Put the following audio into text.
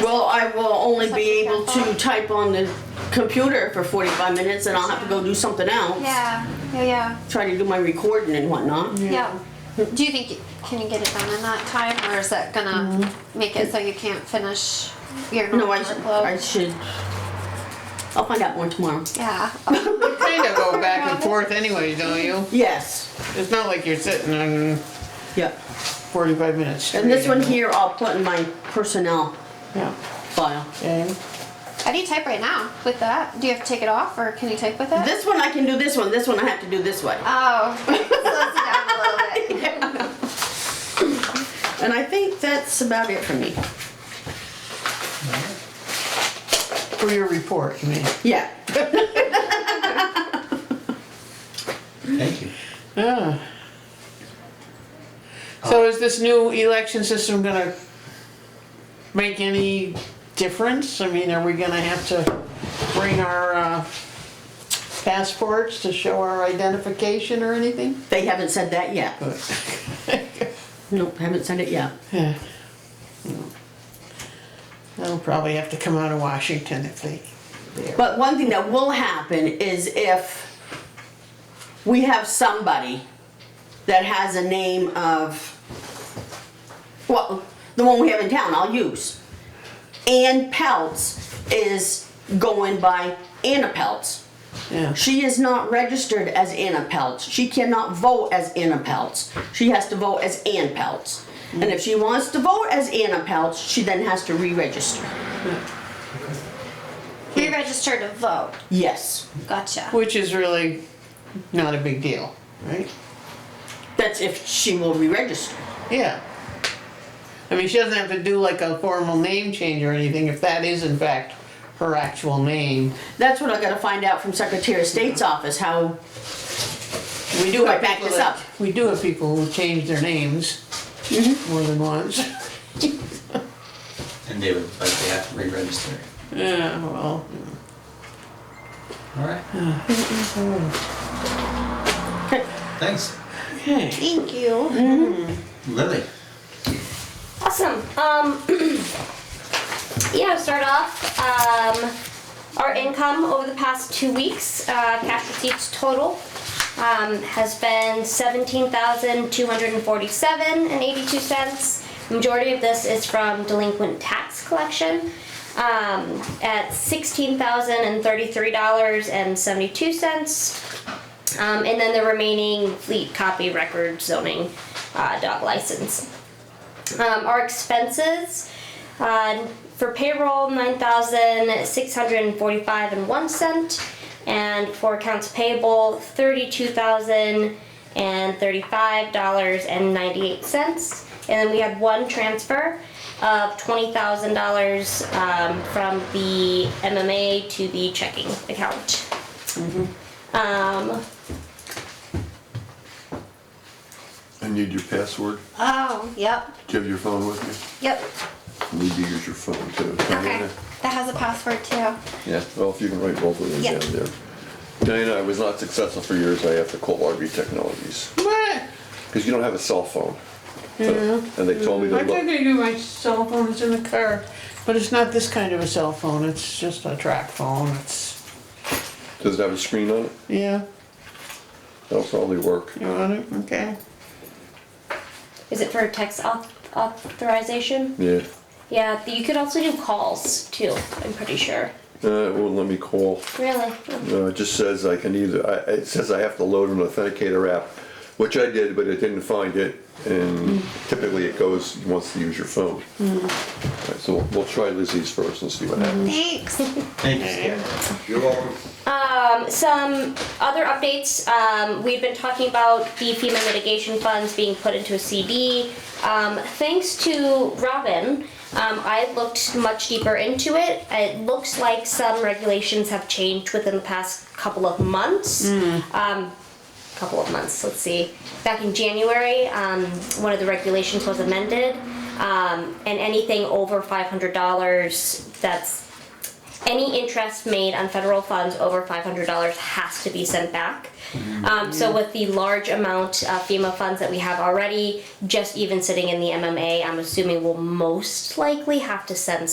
Well, I will only be able to type on the computer for 45 minutes and I'll have to go do something else. Yeah, yeah, yeah. Try to do my recording and whatnot. Yeah. Do you think you, can you get it done in that time, or is that gonna make it so you can't finish your Mm-hmm. No, normal I should, workload? I should, I'll find out more tomorrow. yeah. Oh, You kind of go back and forth anyway, don't you? Yes, It's not like you're sitting on yeah. 45 minutes straight. And this one here, I'll put in my personnel Yeah. file. And How do you type right now with that? Do you have to take it off, or can you type with it? This one, I can do this one, this one I have to do this way. oh, slows it down a little bit. And I think that's about it for me. for your report, you mean? Yeah. Thank you. Ah. Yeah. So is this new election system gonna make any difference? I mean, are we gonna have to bring our uh, passports to show our identification or anything? They haven't said that yet. Nope, haven't said it yet. Yeah. They'll probably have to come out of Washington if they, they're- But one thing that will happen is if we have somebody that has a name of, well, the one we have in town, I'll use. Ann Peltz is going by Anna Peltz. yeah. She is not registered as Anna Peltz. She cannot vote as Anna Peltz. She has to vote as Ann Peltz. And if she wants to vote as Anna Peltz, she then has to re-register. You register to vote. Yes, Gotcha. Which is really not a big deal, right? that's if she will re-register. Yeah. I mean, she doesn't have to do like a formal name change or anything if that is in fact her actual name. That's what I gotta find out from Secretary of State's office, how, We do have Right, back people this that- up. We do have people who change their names more than once. And they would, but they have to re-register. Yeah, well, All right. Thanks, okay. Thank you. Lily. Awesome. Um, yeah, start off. Um, our income over the past two weeks, uh, cash receipts total, um, has been seventeen thousand two hundred and forty-seven and eighty-two cents. Majority of this is from delinquent tax collection um, at sixteen thousand and thirty-three dollars and seventy-two cents. Um, and then the remaining fleet copy record zoning uh, dog license. Um, our expenses uh, for payroll nine thousand six hundred and forty-five and one cent, and for accounts payable thirty-two thousand and thirty-five dollars and ninety-eight cents. And then we had one transfer of twenty thousand dollars um, from the MMA to the checking account. Um, I need your password. Oh, yep, Do you have your phone with you? yep. I need to use your phone too. Okay, that has a password too. Yeah, well, if you can write both of them Yeah. down there. Diana, I was not successful for years. I have to call RV Technologies What? because you don't have a cell phone. And they told me to Mm-hmm. I think look. I do my cell phone, it's in the car, but it's not this kind of a cell phone, it's just a track phone, it's, Does it have a screen on it? yeah, That'll probably work. you want it, okay. is it for text auth- authorization? Yeah. Yeah, you could also do calls too. I'm pretty sure. Uh, it won't let me call. Really? No, Uh, it just says I can either, I- it says I have to load an authenticator app, which I did, but it didn't find it. And typically it goes, wants to use your phone. All right, so we'll- we'll try Lizzie's first and see what happens. Thanks. Thanks. You're welcome. Um, some other updates. Um, we've been talking about the FEMA mitigation funds being put into a CD. Um, thanks to Robin, um, I looked much deeper into it. It looks like some regulations have changed within the past couple of months. Um, couple of months, let's see. Back in January, um, one of the regulations was amended, um, and anything over $500 that's any interest made on federal funds over $500 has to be sent back. Um, so with the large amount of FEMA funds that we have already, just even sitting in the MMA, I'm assuming we'll most likely have to send some.